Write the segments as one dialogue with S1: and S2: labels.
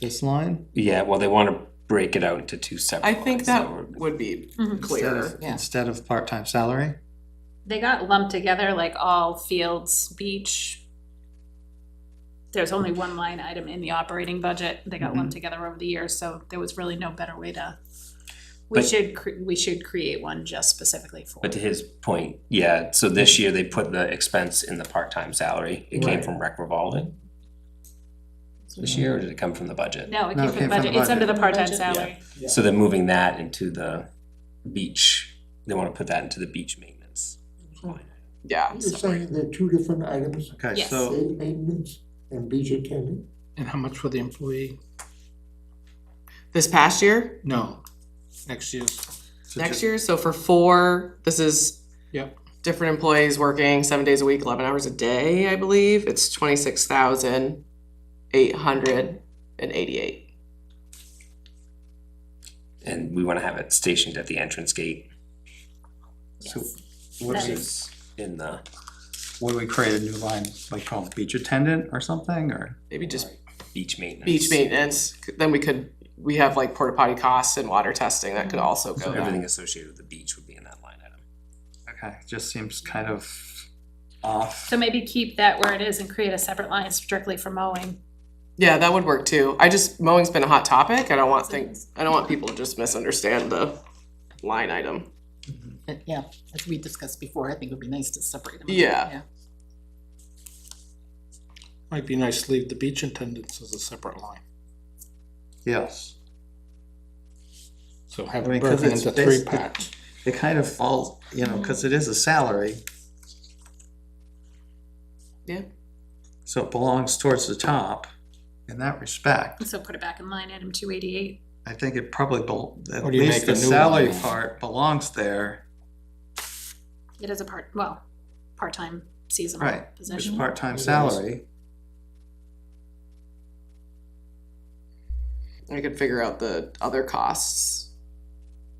S1: this line?
S2: Yeah, well, they wanna break it out into two separate
S3: I
S2: lines,
S3: think
S2: so
S3: that
S2: we're-
S3: would be
S4: Mhm.
S1: instead
S3: clearer.
S1: of-
S4: yeah.
S1: Instead of part-time salary?
S4: They got lumped together like all fields, beach. There's only one line item in the operating budget. They got lumped together over the years, so there was really no better way to. We
S2: But-
S4: should, cre- we should create one just specifically for.
S2: But to his point, yeah, so this year they put the expense in the part-time salary, it came
S1: Right.
S2: from rec revolving? This year, or did it come from the budget?
S4: No, it came from the budget. It's under the part-time salary.
S2: So they're moving that into the beach, they wanna put that into the beach maintenance.
S3: Yeah.
S5: You're saying they're two different items,
S1: Okay,
S4: Yes.
S1: so,
S5: day maintenance and beach attendant?
S6: And how much for the employee?
S3: This past year,
S6: No, next year's.
S1: so
S3: next
S1: just,
S3: year, so for four, this is
S6: Yep.
S3: different employees working seven days a week, eleven hours a day, I believe. It's twenty-six thousand eight hundred and eighty-eight.
S2: And we wanna have it stationed at the entrance gate,
S1: so
S2: which
S4: That
S2: is in the,
S1: would we create a new line, like called beach attendant or something, or?
S3: Maybe just
S2: beach maintenance.
S3: beach maintenance, then we could, we have like porta potty costs and water testing that could
S6: Mm-hmm.
S3: also
S2: So
S3: go
S2: everything
S3: there.
S2: associated with the beach would be in that line item.
S1: Okay, just seems kind of off.
S4: So maybe keep that where it is and create a separate line strictly for mowing.
S3: Yeah, that would work too. I just, mowing's been a hot topic. I don't want things, I don't want people to just misunderstand the line item.
S7: But yeah, as we discussed before, I think it would be nice to separate them. out,
S3: Yeah.
S6: Might be nice to leave the beach attendants as a separate line.
S1: Yes,
S6: So have
S1: I mean,
S6: it
S1: 'cause
S6: broken
S1: it's
S6: into three
S1: basically-
S6: parts.
S1: it kind of falls, you know, cause it is a salary.
S3: Yeah.
S1: So it belongs towards the top in that respect.
S4: So put it back in line item two eighty-eight.
S1: I think it probably, bel- at
S6: Or do you
S1: least
S6: make
S1: the
S6: a new
S1: salary
S6: one?
S1: part belongs there,
S4: It is a part, well, part-time seasonal
S1: right, it's
S4: position.
S1: part-time
S6: It is.
S1: salary.
S3: I could figure out the other costs.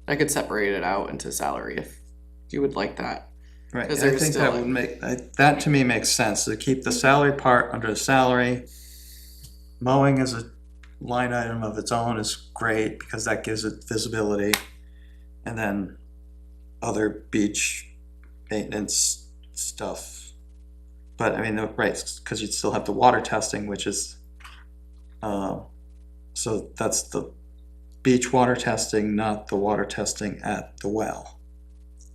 S3: I could separate it out into salary if you would like that.
S1: Right,
S3: Because
S1: I
S3: there's
S1: think
S3: still
S1: that
S3: a-
S1: would make, I- that to me makes sense, to keep the salary part under the salary. Mowing is a line item of its own is great, because that gives it visibility. And then other beach maintenance stuff. But I mean, the- right, because you'd still have the water testing, which is, uh, so that's the beach water testing, not the water testing at the well.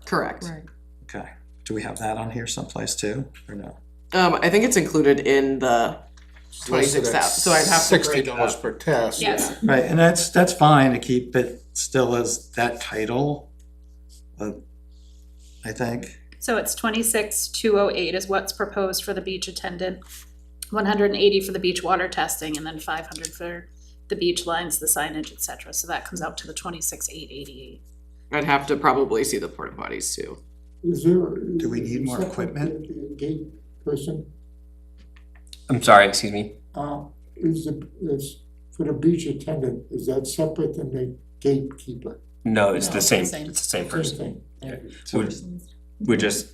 S3: Correct.
S7: Right.
S1: Okay, do we have that on here someplace too, or no?
S3: Um, I think it's included in the twenty-six thousand, so I'd have to
S6: Sixty
S3: break
S6: dollars
S3: up.
S6: per test.
S4: Yes.
S1: Right, and that's, that's fine to keep it still as that title, but I think,
S4: So it's twenty-six, two oh eight is what's proposed for the beach attendant, one hundred and eighty for the beach water testing, and then five hundred for the beach lines, the signage, et cetera, so that comes out to the twenty-six, eight eighty-eight.
S3: I'd have to probably see the porta potties too.
S5: Is there?
S1: Do we need more
S5: is that
S1: equipment?
S5: the- the Gate person,
S2: I'm sorry, excuse me?
S5: uh, is the, is, for the beach attendant, is that separate than the gatekeeper?
S2: No, it's
S7: No,
S2: the
S7: it's
S2: same,
S7: the
S2: it's
S7: same.
S2: the same
S5: Same
S2: person.
S5: thing.
S2: So we're, we're just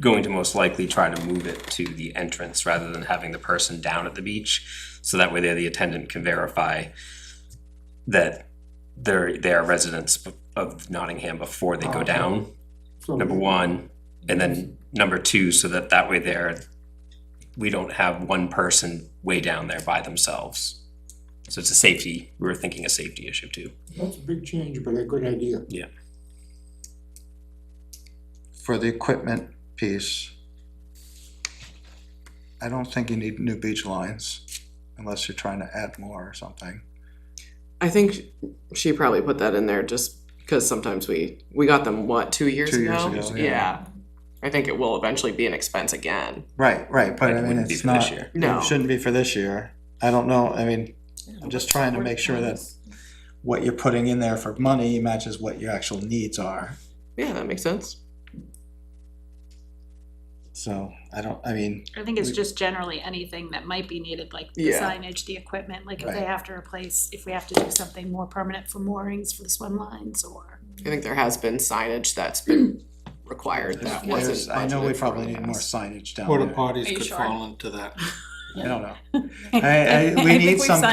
S2: going to most likely try to move it to the entrance rather than having the person down at the beach. So that way there, the attendant can verify that they're, they are residents of Nottingham before they
S1: Ah.
S2: go down,
S5: So
S2: number
S5: the-
S2: one. And then number two, so that that way there, we don't have one person way down there by themselves. So it's a safety, we were thinking a safety issue too.
S5: That's a big change, but a good idea.
S1: for the equipment piece, I don't think you need new beach lines, unless you're trying to add more or something.
S3: I think she probably put that in there just because sometimes we, we got them, what, two years ago?
S1: Two years ago, yeah.
S3: Yeah. I think it will eventually be an expense again.
S1: Right, right, but I mean,
S2: Wouldn't be
S1: it's
S2: for this
S1: not,
S2: year.
S3: No.
S1: it shouldn't be for this year. I don't know, I mean, I'm just trying to make sure that what you're putting in there for money matches what your actual needs are.
S3: Yeah, that makes sense.
S1: So, I don't, I mean,
S4: I think it's just generally anything that might be needed, like the
S3: Yeah.
S4: signage, the equipment, like if they
S1: Right.
S4: have to replace, if we have to do something more permanent for moorings for the swim lines or.
S3: I think there has been signage that's been required that
S1: There's-
S3: wasn't
S1: I know
S3: budgeted
S1: we
S3: for
S1: probably
S3: in the
S1: need more
S3: past.
S1: signage down
S6: Porta
S1: there.
S6: potties
S4: you
S6: could
S4: sure?
S6: fall into that.
S1: I don't know. I, I, we
S4: think
S1: need
S4: we've
S1: some